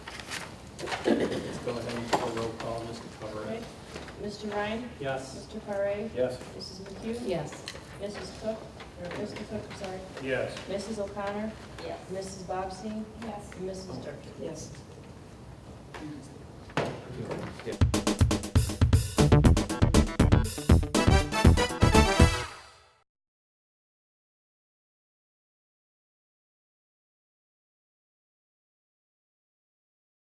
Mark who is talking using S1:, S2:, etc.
S1: Mr. Ryan?
S2: Yes.
S1: Mr. Paray?
S2: Yes.
S1: Mrs. McHugh?
S3: Yes.
S1: Mrs. Cook? Or Mr. Cook, I'm sorry.
S2: Yes.
S1: Mrs. O'Connor?
S3: Yes.
S1: Mrs. Bobbsey?
S4: Yes.
S1: And Mrs. Durkin?
S3: Yes.